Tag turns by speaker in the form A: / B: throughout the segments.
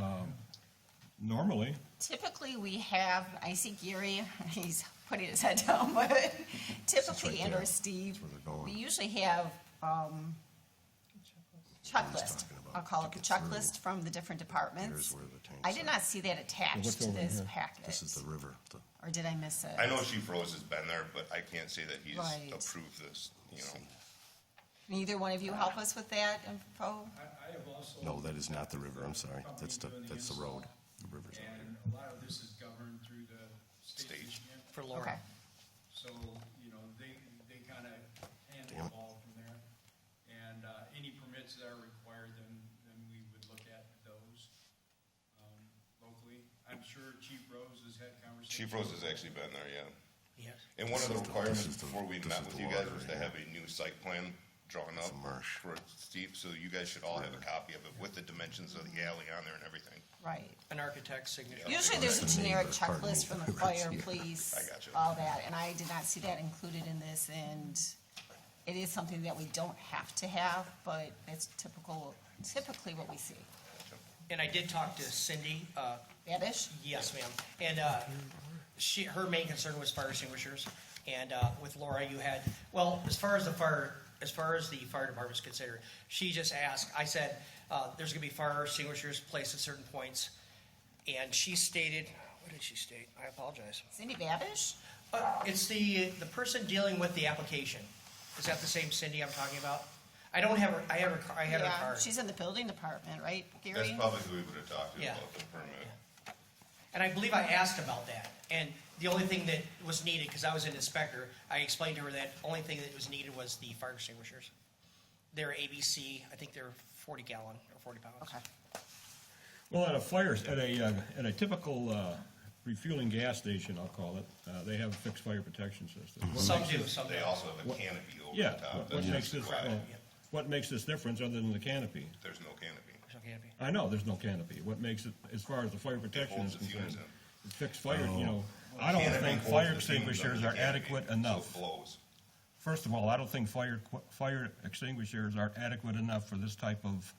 A: Um, normally.
B: Typically, we have, I see Gary, he's putting his head down, but typically, and or Steve,
C: That's where they're going.
B: we usually have, um, checklist,
C: talking about
B: I'll call it
C: to
B: the
C: get through.
B: checklist from the different departments.
C: Here's where the tanks
B: I did
C: are.
B: not see that
A: what's
B: attached to
A: over
B: this
A: here?
B: packet,
C: This is the river. The-
B: or did I miss it?
D: I know Chief Rose has been there, but I can't say that he's
B: Right.
D: approved this, you know.
B: Can either one of you help us with that info?
E: I, I have also.
C: No, that is not the river, I'm sorry.
E: Company
C: That's the,
E: doing
C: that's the road.
E: install,
C: The river's out here.
E: And a lot of this is governed through the state. of
D: State.
E: Michigan.
F: for
B: Okay,
F: Laura.
E: So, you know, they, they kind of handle
C: Damn.
E: the ball from there. And uh, any permits that are required, then, then we would look at those um, locally. I'm sure Chief Rose has had conversations.
D: Chief Rose has actually been there, yeah.
F: Yes.
D: And one of the
C: This is the- this is
D: requirements
C: the-
D: before we
C: this
D: met
C: is
D: with
C: the
D: you guys
C: water
D: was to
C: here.
D: have a new site plan drawn up
C: a marsh.
D: for Steve, so you guys should all have a copy of it with the dimensions of the alley on there and everything.
B: right.
F: An architect's signature.
B: Usually there's
C: That's
B: a
C: the
B: generic
C: neighbor, pardon me.
B: checklist from the fire, police,
D: I gotcha.
B: all that, and I did not see that included in this, and it is something that we don't have to have, but it's typical, typically what we see.
F: And I did talk to Cindy, uh,
B: Babish?
F: yes, ma'am, and, uh, she, her main concern was fire extinguishers. And, uh, with Laura, you had, well, as far as the fire, as far as the fire department's concerned, she just asked, I said, uh, there's gonna be fire extinguishers placed at certain points. And she stated, what did she state? I apologize.
B: Cindy Babish?
F: Uh, It's the, the person dealing with the application. Is that the same Cindy I'm talking about? I don't have her, I have her, car- I have her
B: Yeah,
F: card.
B: she's in the building department, right,
D: That's
B: Gary?
D: probably who we would have talked to
F: Yeah.
D: about the permit.
F: And I believe I asked about that. And the only thing that was needed, because I was an inspector, I explained to her that only thing that was needed was the fire extinguishers. They're ABC, I think they're forty gallon or forty pounds.
B: Okay,
A: Well, at a fire, at a, uh, at a typical uh, refueling gas station, I'll call it, uh, they have a fixed fire protection system. What
F: Some
A: makes
F: do,
A: this-
F: some
D: They
F: don't.
D: also have a canopy over the
A: Yeah,
D: top.
A: what- what
D: Mm-hmm. Uh, that's
A: makes this,
D: required.
A: well, what makes this difference other than the canopy?
D: There's no canopy.
F: Some can't be.
A: I know, there's no canopy. What makes it, as far as the fire protection
D: holds
A: is
D: the fumes
A: concerned?
D: in. Oh.
A: it's Fixed fire, you know, I don't
D: Canopy
A: think
D: holds
A: fire
D: the fumes under
A: extinguishers
D: the
A: are
D: canopy,
A: adequate
D: so it
A: enough.
D: Blows.
A: First of all, I don't think fire, qu- fire extinguishers are adequate enough for this type of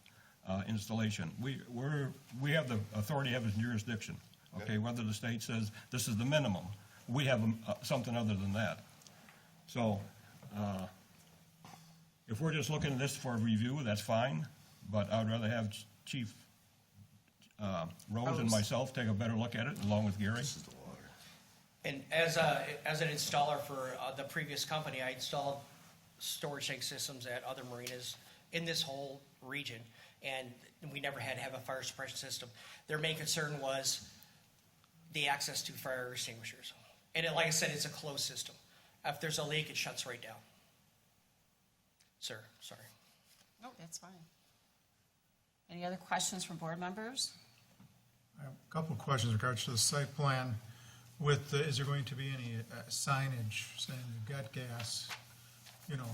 A: uh, installation. We, we're, we have the authority, have jurisdiction, okay? Whether the state says this is the minimum, we have um, uh, something other than that. So uh, if we're just looking at this for review, that's fine, but I would rather have Ch- Chief uh, Rose and
B: Rose.
A: myself take a better look at it, along with Gary.
C: This is the water.
F: And as a, as an installer for uh, the previous company, I installed storage tank systems at other marinas in this whole region, and we never had to have a fire suppression system. Their main concern was the access to fire extinguishers. And it, like I said, it's a closed system. If there's a leak, it shuts right down. Sir, sorry.
B: no, that's fine. Any other questions from board members?
G: I have a couple of questions in regards to the site plan with, uh, is there going to be any uh, signage saying you've got gas? You know,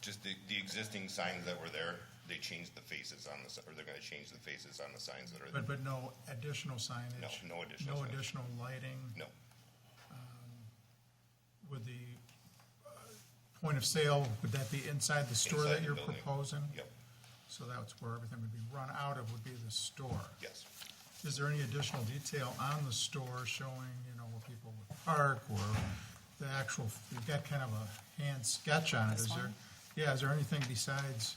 D: Just the, the existing signs that were there, they changed the faces on the, si- or they're gonna change the faces on the signs that are there.
G: but, but no additional signage?
D: No, no additional
G: No
D: signage.
G: additional lighting?
D: No,
G: Would the uh, point of sale, would that be inside the store
D: Inside
G: that
D: the
G: you're
D: building.
G: proposing?
D: yep,
G: So that's where everything would be run out of, would be the store?
D: yes.
G: Is there any additional detail on the store showing, you know, where people would park or the actual, you've got kind of a hand sketch on it,
B: This
G: is there?
B: one?
G: Yeah, is there anything besides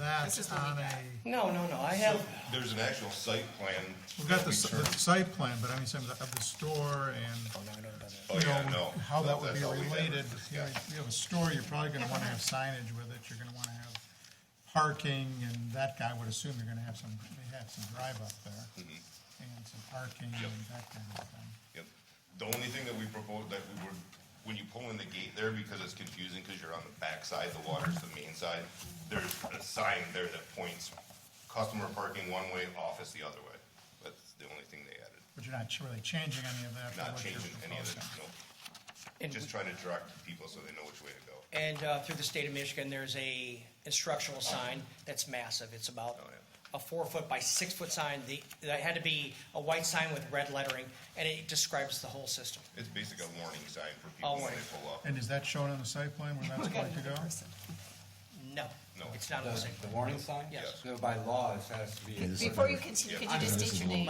G: that
B: This is what we
G: on a,
B: got.
F: No, no, no, I have,
D: There's an actual site plan.
G: we've got
D: that
G: the,
D: we
G: s- the
D: turned-
G: site plan, but I mean, some of the, of the store and,
D: Oh,
G: you
D: yeah,
G: know,
D: no.
G: how that would
D: That's
G: be
D: all we had.
G: related. You know,
D: Yeah.
G: if you have a store, you're probably gonna wanna have signage with it, you're gonna wanna have parking, and that guy would assume you're gonna have some, they have some drive up there. And some parking
D: Mm-hmm. Yep.
G: and that kind of thing.
D: Yep. The only thing that we proposed, that we were, when you pull in the gate there, because it's confusing, because you're on the back side, the water's the main side, there's a sign there that points customer parking one way, office the other way. That's the only thing they added.
G: But you're not really changing any of that? from
D: Not
G: what you're
D: changing any of the,
G: proposing.
D: no,
F: and
D: just trying to direct people so they know which way to go.
F: And uh, through the state of Michigan, there's a instructional sign that's massive. It's about
D: Oh,
F: a four foot by six foot sign. The, that had to be a white sign with red lettering, and it describes the whole system.
D: It's basically a warning sign for
F: Oh,
D: people when
F: warning.
D: they pull up.
G: And is that shown on the site plan where that's going to go?
F: No,
D: No.
F: it's not on the same.
H: The warning sign?
F: Yes.
H: So By law, it has to be.
C: Yeah, this is-
B: Before you continue, could you just state your name?